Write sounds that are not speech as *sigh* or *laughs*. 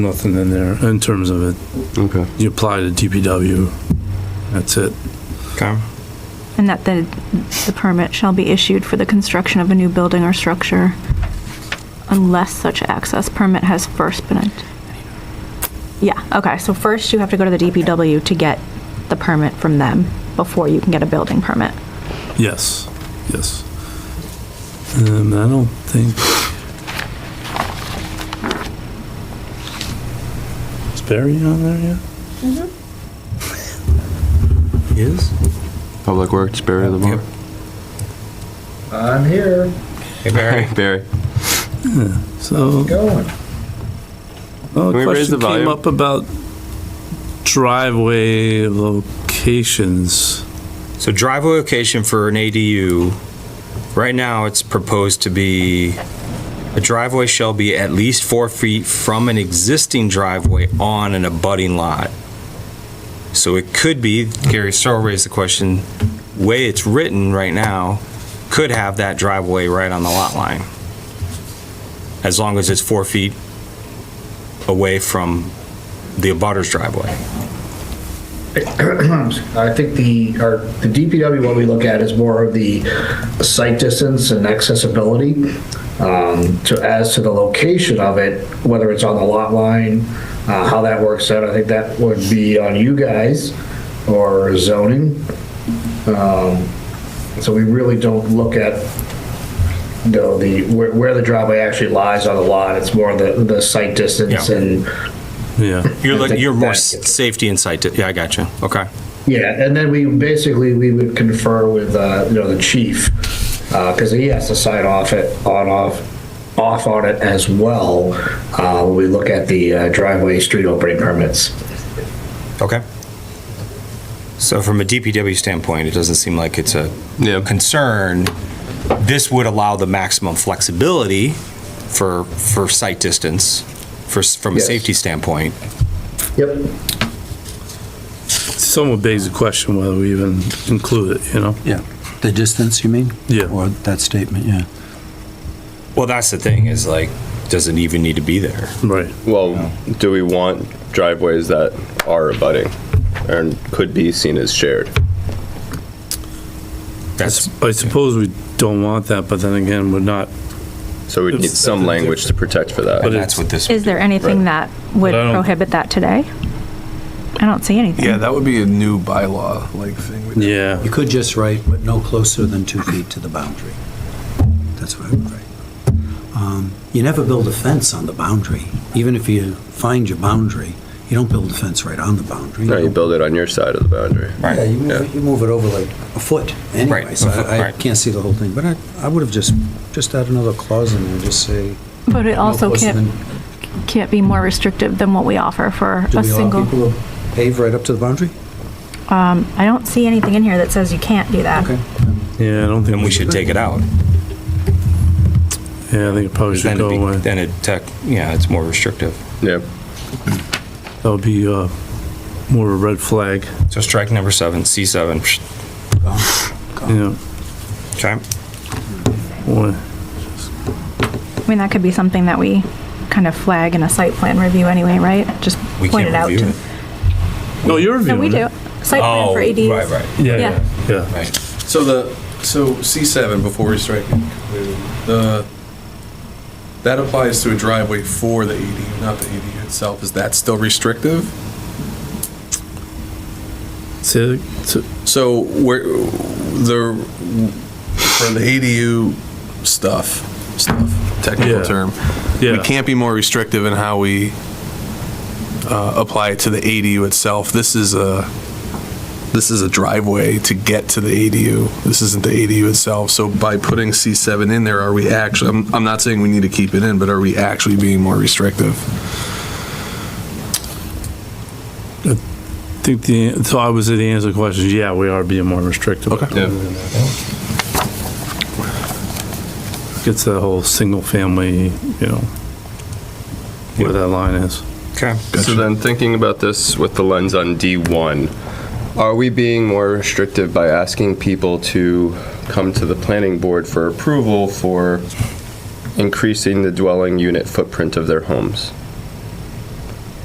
Nothing in there in terms of it. Okay. You apply to DPW. That's it. Okay. And that the, the permit shall be issued for the construction of a new building or structure unless such access permit has first been. ent- Yeah, okay, so first you have to go to the DPW to get the permit from them before you can get a building permit. Yes, yes. Um, I don't think. Is Barry on there yet? Mm-hmm. He is? Public Works, Barry Lamar. I'm here. Hey Barry, Barry. So. Going. Oh, a Can we raise question the came volume? up about driveway locations. so driveway location for an ADU, right now it's proposed to be, a driveway shall be at least four feet from an existing driveway on an abutting lot. So it could be, Gary Stowe raised the question, way it's written right now, could have that driveway right on the lot line. As long as it's four feet away from the abutter's driveway. I think the, our, the DPW, what we look at is more of the site distance and accessibility. Um, to, as to the location of it, whether it's on the lot line, uh, how that works out, I think that would be on you guys or zoning. Um, so we really don't look at, you know, the, where, where the driveway actually lies on the lot. It's more the, the site distance Yeah. and Yeah. You're like, you're more That- s- safety and sight, di- yeah, I got you, okay. Yeah, and then we, basically, we would confer with, uh, you know, the chief, because he has to sign off it, on, off, off on it as well. uh, when We look at the uh, driveway, street opening permits. Okay. So from a DPW standpoint, it doesn't seem like it's a *laughs* Yeah. concern. This would allow the maximum flexibility for, for sight distance, for, s- from a Yes. safety standpoint. Yep. Someone begs the question whether we even include it, you know? Yeah, the distance, you mean? Yeah. Or that statement, yeah. Well, that's the thing, is like, does it even need to be there? Right. Well, do we want driveways that are abutting and could be seen as shared? I That's, sup- I suppose we don't want that, but then again, we're not, So we'd need It's- some language to protect for But that. it- that's what this, Is there anything that would But I don't- prohibit that today? I don't see anything. Yeah, that would be a new bylaw like thing. we'd- yeah. You could just write, but no closer than two feet to the boundary. That's what I would write. Um, You never build a fence on the boundary. Even if you find your boundary, you don't build a fence right on the boundary. No, you build it on your side of the boundary. Right. Yeah, you move, Yeah. it- you move it over like a foot anyway, Right, so a foot, I- I right. can't see the whole thing. But I, I would have just, just add another clause in there, just say. But it no also closer can't, than- can't be more restrictive than what we offer for Do a we allow single. people to pave right up to the boundary? I don't see anything in here that says you can't do that. Okay. Yeah, I don't think. then we should take it out. Yeah, I think it probably should Then go it'd be- away. Then it tech, yeah, it's more restrictive. Yeah. That would be, uh, more of a red flag, So strike number seven, C7, psh, you know? okay? Boy, I mean, that could be something that we kind of flag in a site plan review anyway, right? Just We point it can't out. review to- it. No, you're No, reviewing we do. it. Site plan Oh, for right, ADs. right. Yeah, Yeah. yeah, yeah. Right. So the, so C7, before we strike it, completely, the, that applies to a driveway for the ADU, not the ADU itself. Is that still restrictive? So, so- So where, the, for the ADU stuff, stuff, Yeah. technical term. yeah. We can't be more restrictive in how we uh, apply it to the ADU itself. This is a, this is a driveway to get to the ADU. This isn't the ADU itself. So by putting C7 in there, are we actually, I'm, I'm not saying we need to keep it in, but are we actually being more restrictive? I think the, so I was the answer to the question, is yeah, we are being more restrictive. Okay. Gets that whole single family, you know, where that line is. Okay. So then thinking about this with the lens on D1, are we being more restrictive by asking people to come to the planning board for approval for increasing the dwelling unit footprint of their homes?